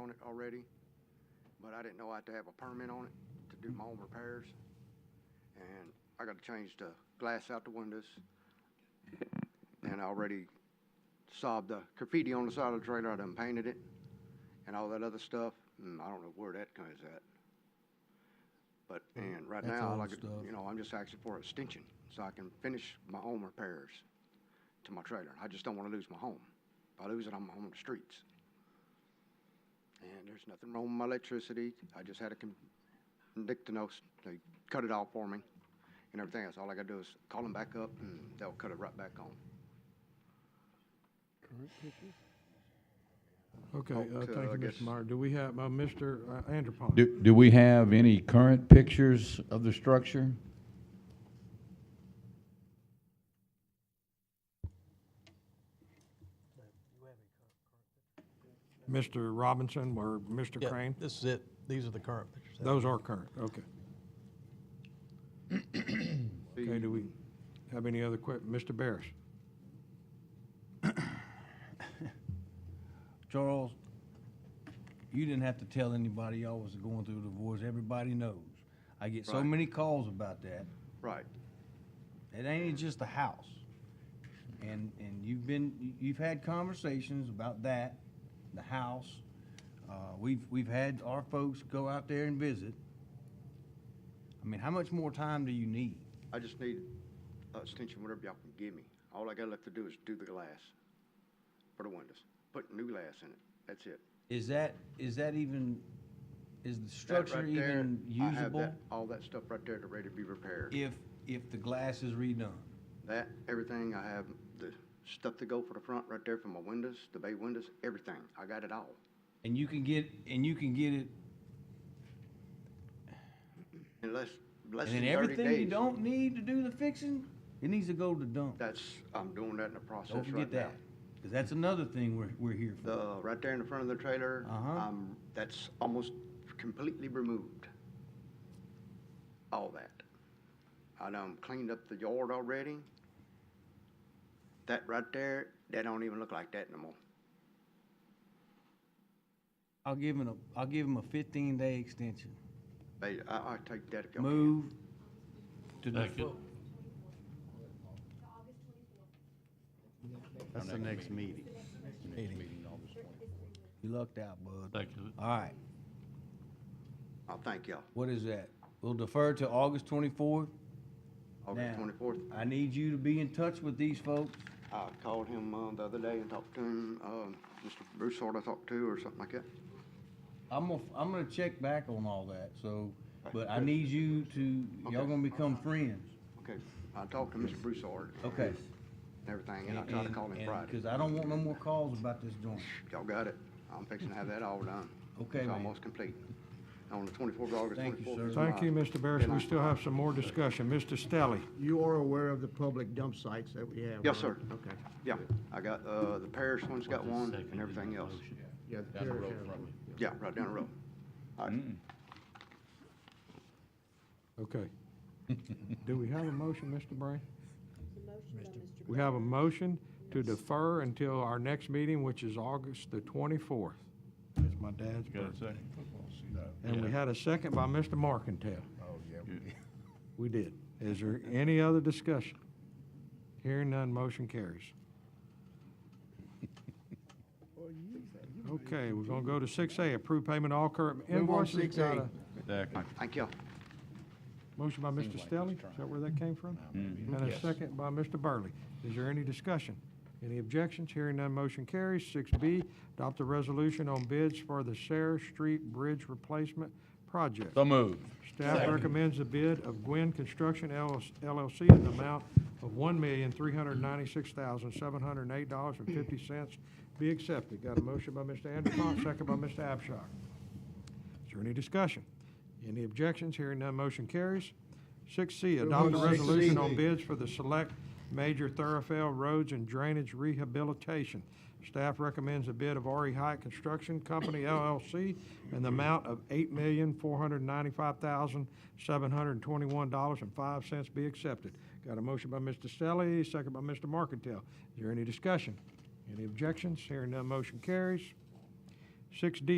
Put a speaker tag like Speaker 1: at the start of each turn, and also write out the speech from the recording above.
Speaker 1: on it already, but I didn't know I had to have a permit on it to do my own repairs. And I got to change the glass out the windows. And I already sobbed the graffiti on the side of the trailer, I done painted it and all that other stuff. And I don't know where that comes at. But, and right
Speaker 2: That's
Speaker 1: now,
Speaker 2: old
Speaker 1: like,
Speaker 2: stuff.
Speaker 1: you know, I'm just asking for an extension so I can finish my own repairs to my trailer. I just don't want to lose my home. If I lose it, I'm on the streets. And there's nothing wrong with my electricity. I just had a con- Dictanos, they cut it off for me and everything else. All I gotta do is call them back up and they'll cut it right back on.
Speaker 2: Okay, uh,
Speaker 1: Okay,
Speaker 2: thank
Speaker 1: I
Speaker 2: you,
Speaker 1: guess-
Speaker 2: Mr. Meyer. Do we have, uh, Mr. Anderpont?
Speaker 3: Do, do we have any current pictures of the structure?
Speaker 2: Mr. Robinson or Mr.
Speaker 4: Yeah,
Speaker 2: Crane?
Speaker 4: This is it. These are the current pictures.
Speaker 2: Those are current, okay. Okay, do we have any other que, Mr. Barris?
Speaker 5: Charles, you didn't have to tell anybody y'all was going through a divorce. Everybody knows. I get so
Speaker 1: Right.
Speaker 5: many calls about that.
Speaker 1: Right,
Speaker 5: It ain't just a house. And, and you've been, you- you've had conversations about that, the house. Uh, we've, we've had our folks go out there and visit. I mean, how much more time do you need?
Speaker 1: I just need a extension, whatever y'all can give me. All I got left to do is do the glass for the windows, put new glass in it, that's it.
Speaker 5: Is that, is that even, is the
Speaker 1: That
Speaker 5: structure
Speaker 1: right there,
Speaker 5: even
Speaker 1: I have
Speaker 5: usable?
Speaker 1: that- All that stuff right there to ready to be repaired.
Speaker 5: If, if the glass is redone?
Speaker 1: That, everything, I have the stuff to go for the front right there for my windows, the bay windows, everything. I got it all.
Speaker 5: And you can get, and you can get it,
Speaker 1: In less, less
Speaker 5: and
Speaker 1: than
Speaker 5: then
Speaker 1: thirty
Speaker 5: everything you
Speaker 1: days.
Speaker 5: don't need to do the fixing, it needs to go to dump.
Speaker 1: That's, I'm doing that in the process
Speaker 5: Don't
Speaker 1: right
Speaker 5: forget
Speaker 1: now.
Speaker 5: that, because that's another thing we're, we're here for.
Speaker 1: The, right there in the front of the trailer,
Speaker 5: Uh-huh.
Speaker 1: um, that's almost completely removed. All that. I done cleaned up the yard already. That right there, that don't even look like that no more.
Speaker 5: I'll give him a, I'll give him a fifteen day extension.
Speaker 1: But I, I take that if y'all can.
Speaker 5: Move to the.
Speaker 4: That's the next meeting.
Speaker 5: You lucked out, bud.
Speaker 6: Thank you.
Speaker 5: All right,
Speaker 1: I Oh, thank y'all.
Speaker 5: what is that? We'll defer to August twenty-fourth.
Speaker 1: August
Speaker 5: Now.
Speaker 1: twenty-fourth.
Speaker 5: I need you to be in touch with these folks.
Speaker 1: I called him, uh, the other day and talked to him, um, Mr. Broussard I talked to or something like that.
Speaker 5: I'm gonna, I'm gonna check back on all that, so, but I
Speaker 1: Okay.
Speaker 5: need you to, y'all
Speaker 1: Okay.
Speaker 5: gonna become friends,
Speaker 1: Okay, I talked to Mr. Broussard.
Speaker 5: okay?
Speaker 1: and Everything, and I tried to call him Friday.
Speaker 5: Because I don't want no more calls about this joint.
Speaker 1: Y'all got it. I'm fixing to have that all done.
Speaker 5: Okay,
Speaker 1: It's
Speaker 5: man.
Speaker 1: almost complete. On the twenty-fourth of August,
Speaker 5: Thank you,
Speaker 1: twenty-fourth.
Speaker 5: sir.
Speaker 2: Thank you, Mr. Barris. We still have some more discussion. Mr. Stelly?
Speaker 7: You are aware of the public dump sites that we have?
Speaker 1: Yes, sir.
Speaker 7: right? Okay.
Speaker 1: Yeah, I got, uh, the parish one's got one Oh,
Speaker 6: Second
Speaker 1: and everything else.
Speaker 6: motion.
Speaker 7: Yeah, the
Speaker 6: Down the
Speaker 7: parish
Speaker 6: road
Speaker 7: has
Speaker 6: from
Speaker 7: one.
Speaker 1: Yeah, right down the road. All right.
Speaker 2: Okay. Do we have a motion, Mr. Brain? We have a motion to defer until our next meeting, which is August the 24th.
Speaker 7: That's my dad's
Speaker 6: Got a
Speaker 7: birthday.
Speaker 6: second?
Speaker 2: And we
Speaker 6: Yeah.
Speaker 2: had a second by Mr. Markentile.
Speaker 7: Oh, yeah.
Speaker 2: We did. Is there any other discussion? Hearing none, motion carries. Okay, we're gonna go to six A, approve payment of all current
Speaker 7: Move on,
Speaker 2: invoices.
Speaker 7: 6A.
Speaker 2: Got a
Speaker 3: Second.
Speaker 1: Thank y'all.
Speaker 2: Motion by Mr. Stelling, is that where that came from? And a second by Mr. Burley. Is there any discussion? Any objections? Hearing none, motion carries. Six B, adopt a resolution on bids for the Sarah Street Bridge Replacement Project.
Speaker 3: So moved.
Speaker 2: Staff recommends the bid of Gwin Construction LLC in the amount of one million, three hundred ninety-six thousand, seven hundred eight dollars and fifty cents be accepted. Got a motion by Mr. Anderson, second by Mr. Abshar. Is there any discussion? Any objections? Hearing none, motion carries. Six C, adopt a resolution on bids for the select major thoroughfare roads and drainage rehabilitation. Staff recommends a bid of RE High Construction Company LLC in the amount of eight million, four hundred ninety-five thousand, seven hundred twenty-one dollars and five cents be accepted. Got a motion by Mr. Selly, second by Mr. Markentile. Is there any discussion? Any objections? Hearing none, motion carries. Six D,